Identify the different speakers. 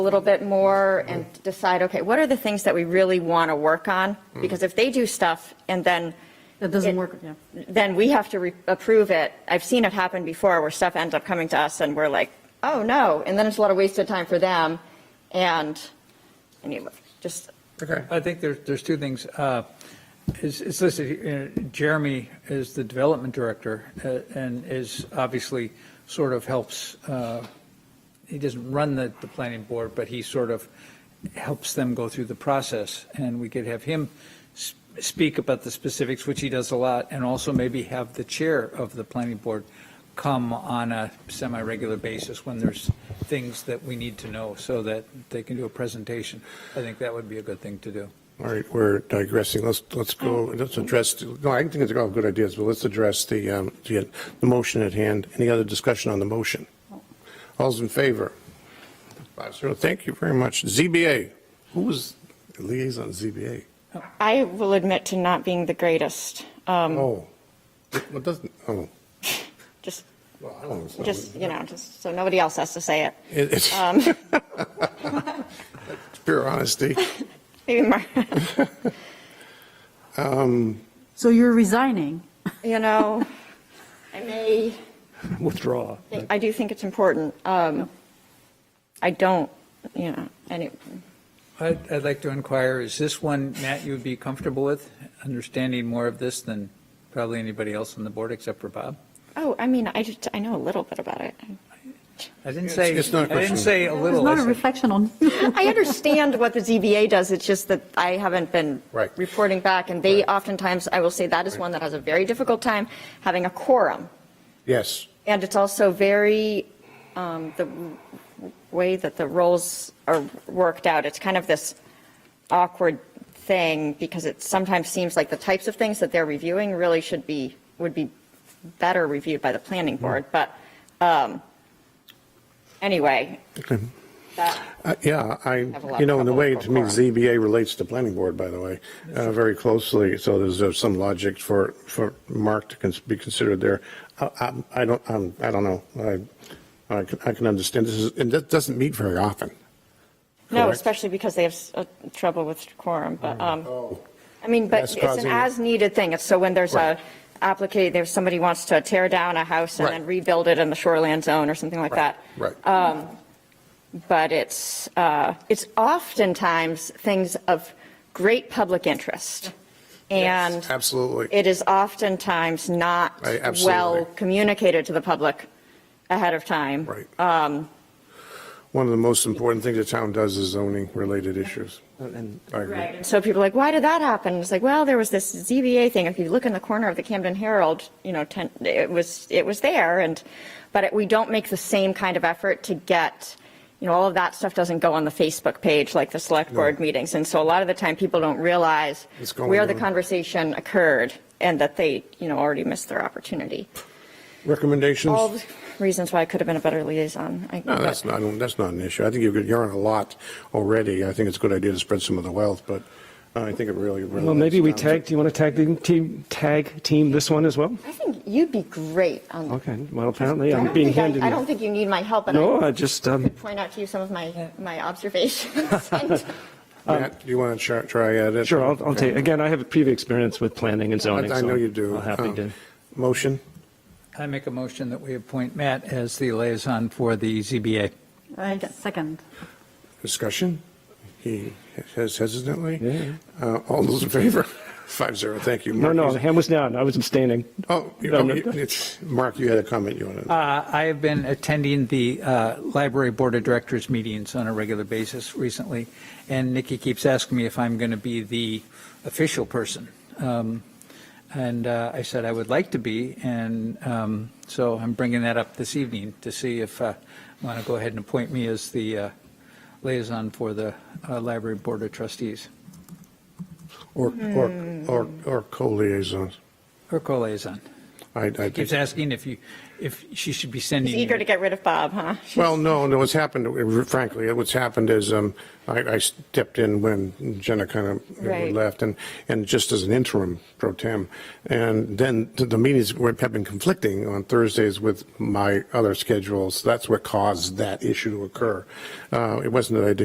Speaker 1: a little bit more and decide, okay, what are the things that we really want to work on? Because if they do stuff and then,
Speaker 2: That doesn't
Speaker 1: It-
Speaker 2: work, yeah.
Speaker 1: then we have to re- approve it. I've seen it happen before where stuff ends up coming to us and we're like, oh, no. And then it's a lot of wasted time for them. And anyway, just,
Speaker 3: Okay.
Speaker 4: I think there's, there's two things. Uh, It's it's listed, here, uh, Jeremy is the development director uh, and is obviously sort of helps, uh, he doesn't run the, the planning board, but he sort of helps them go through the process. And we could have him s- speak about the specifics, which he does a lot, and also maybe have the chair of the planning board come on a semi-regular basis when there's things that we need to know so that they can do a presentation. I think that would be a good thing to do.
Speaker 3: All right, we're digressing. Let's, let's go,
Speaker 1: Mm.
Speaker 3: let's address, no, I think it's all good ideas, but let's address the, um, the, the motion at hand. Any other discussion on the motion? All's in favor? Five zero. Thank you very much. ZBA, who was liaison ZBA?
Speaker 1: I will admit to not being the greatest. Um,
Speaker 3: Oh, what doesn't, oh.
Speaker 1: Just,
Speaker 3: well, I don't know.
Speaker 1: just, you know, just so nobody else has to say it.
Speaker 3: It- It's
Speaker 1: Um,
Speaker 3: pure honesty.
Speaker 1: Maybe Mar,
Speaker 2: So you're resigning.
Speaker 1: you know, I may.
Speaker 3: Withdraw.
Speaker 1: I do think it's important. Um, I don't, you know, any,
Speaker 4: I'd, I'd like to inquire, is this one, Matt, you would be comfortable with, understanding more of this than probably anybody else on the board except for Bob?
Speaker 1: oh, I mean, I just, I know a little bit about it.
Speaker 4: I didn't say,
Speaker 3: It's- it's not a
Speaker 4: I didn't
Speaker 3: question.
Speaker 4: say a
Speaker 2: It's
Speaker 4: little. I
Speaker 2: not a
Speaker 4: said-
Speaker 2: reflection on,
Speaker 1: I understand what the ZBA does, it's just that I haven't been
Speaker 3: Right.
Speaker 1: reporting back, and they oftentimes, I will say, that is one that has a very difficult time having a quorum.
Speaker 3: Yes,
Speaker 1: And it's also very, um, the way that the roles are worked out, it's kind of this awkward thing because it sometimes seems like the types of things that they're reviewing really should be, would be better reviewed by the planning board. But um, anyway,
Speaker 3: Okay.
Speaker 1: that,
Speaker 3: Uh, Yeah, I,
Speaker 1: Have a lot
Speaker 3: you
Speaker 1: of
Speaker 3: know, in a
Speaker 1: trouble
Speaker 3: way,
Speaker 1: with
Speaker 3: to me,
Speaker 1: quorum.
Speaker 3: ZBA relates to planning board, by the way, uh, very closely, so there's uh, some logic for, for Mark to cons- be considered there. I- I'm- I don't, I'm- I don't know, I, I can- I can understand, this is, and that doesn't meet very often.
Speaker 1: no,
Speaker 3: Correct.
Speaker 1: especially because they have s- uh, trouble with quorum, but, um,
Speaker 3: Oh.
Speaker 1: I mean, but
Speaker 3: That's
Speaker 1: it's an
Speaker 3: causing-
Speaker 1: as-needed thing. It's so when there's a
Speaker 3: Right.
Speaker 1: applicant, there's somebody wants to tear down a house and
Speaker 3: Right.
Speaker 1: then rebuild it in the shoreland zone or something like that. uh,
Speaker 3: Right.
Speaker 1: but it's, uh, it's oftentimes things of great public interest. And
Speaker 3: Absolutely.
Speaker 1: it is oftentimes not
Speaker 3: Right, absolutely.
Speaker 1: well communicated to the public ahead of time. Um,
Speaker 3: Right. One of the most important things the town does is zoning-related issues. I agree.
Speaker 1: And so people are like, why did that happen? It's like, well, there was this ZBA thing. If you look in the corner of the Camden Herald, you know, ten, it was, it was there. And, but it, we don't make the same kind of effort to get, you know, all of that stuff doesn't go on the Facebook page like the select board meetings. And so a lot of the time people don't realize
Speaker 3: It's going
Speaker 1: where the
Speaker 3: on.
Speaker 1: conversation occurred and that they, you know, already missed their opportunity. All
Speaker 3: Recommendations?
Speaker 1: the reasons why I could have been a better liaison. I-
Speaker 3: No, that's not, that's not an issue. I think you're, good- you're on a lot already. I think it's a good idea to spread some of the wealth, but uh, I think it really. um,
Speaker 5: Well, maybe we tag, do you want to tag the team, tag team this one as well?
Speaker 1: I think you'd be great on. the-
Speaker 5: Okay, well, apparently
Speaker 1: I
Speaker 5: I'm
Speaker 1: don't
Speaker 5: being
Speaker 1: think I-
Speaker 5: handed.
Speaker 1: I don't think you need my help. and I-
Speaker 5: No, I just, um,
Speaker 1: point out to you some of my, my observations. And
Speaker 3: Matt, do you want to try uh, at it?
Speaker 5: um, sure, I'll, I'll take, again, I have a previous experience with planning and zoning.
Speaker 3: I I
Speaker 5: so
Speaker 3: know you do.
Speaker 5: I'm happy
Speaker 3: Um,
Speaker 5: to.
Speaker 3: Motion?
Speaker 4: I make a motion that we appoint Matt as the liaison for the ZBA.
Speaker 2: I second.
Speaker 3: Discussion? He says hesitantly.
Speaker 5: Yeah.
Speaker 3: Uh, All those in favor? Five zero, thank you.
Speaker 5: No,
Speaker 3: Mark,
Speaker 5: no,
Speaker 3: you-
Speaker 5: hand was down, I was abstaining.
Speaker 3: Oh, you-
Speaker 5: no,
Speaker 3: oh,
Speaker 5: no.
Speaker 3: you- it's- Mark, you had a comment you wanted.
Speaker 4: Uh, I have been attending the uh, library board of directors meetings on a regular basis recently, and Nikki keeps asking me if I'm going to be the official person. Um, And uh, I said I would like to be, and um, so I'm bringing that up this evening to see if uh, you want to go ahead and appoint me as the uh, liaison for the uh, library board of trustees,
Speaker 3: Or, or, or, or co-liaisons.
Speaker 4: or co-liaison.
Speaker 3: I, I
Speaker 4: Keeps
Speaker 3: think,
Speaker 4: asking if you, if she should be sending.
Speaker 1: Eager to get rid of Bob, huh?
Speaker 3: Well, no, no, what's happened, frankly, what's happened is um, I I stepped in when Jenna kind of
Speaker 1: Right.
Speaker 3: left, and, and just as an interim pro tem. And then the- the meetings were- have been conflicting on Thursdays with my other schedules. That's what caused that issue to occur. Uh, It wasn't that I didn't